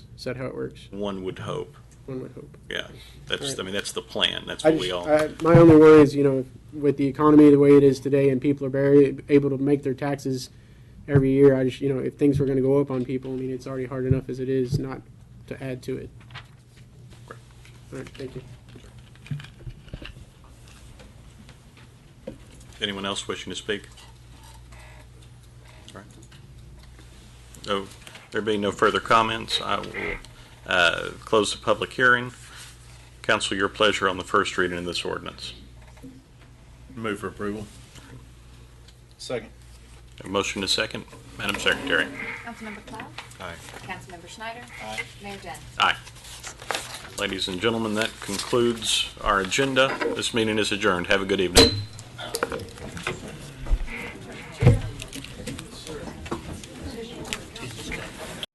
Is that how it works? One would hope, One would hope. yeah. That's, I mean, that's the plan, that's I what we just- all, I- My only worry is, you know, with the economy the way it is today and people are very able to make their taxes every year, I just, you know, if things were gonna go up on people, I mean, it's already hard enough as it is, not to add to it. All right, thank you. anyone else wishing to speak? All right. So, there being no further comments, I will uh, close the public hearing. Council, your pleasure on the first reading of this ordinance. Move for approval. Second. A motion to second, Madam Secretary. Councilmember Cloud? Aye. Councilmember Schneider? Aye. Mayor Denne? Aye. Ladies and gentlemen, that concludes our agenda. This meeting is adjourned. Have a good evening.